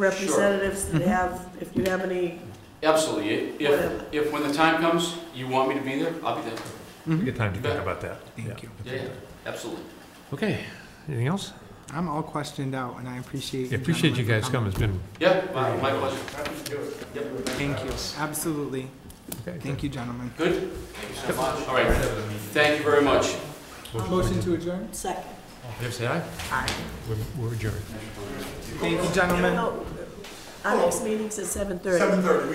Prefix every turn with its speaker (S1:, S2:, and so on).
S1: representatives that have, if you have any,
S2: Absolutely.
S1: Whatever.
S2: If, if when the time comes, you want me to be there, I'll be there.
S3: We get time to
S2: You bet.
S3: think about that.
S4: Thank you.
S2: Yeah, yeah, absolutely.
S3: Okay, anything else?
S4: I'm all questioned out, and I appreciate.
S3: Yeah, Appreciate you
S4: gentlemen
S3: guys
S4: for
S3: coming, it's been,
S2: Yeah, my, my pleasure. Yep.
S4: Thank you. Absolutely.
S3: okay.
S4: Thank you, gentlemen.
S2: Good? Thank you so much. All right. Thank you very much.
S4: Motion to adjourn?
S1: second.
S3: All in favor, say aye.
S4: Aye.
S3: We're- We're adjourned.
S1: Oh,
S4: Thank you, gentlemen.
S1: No, Our next meeting's at seven thirty.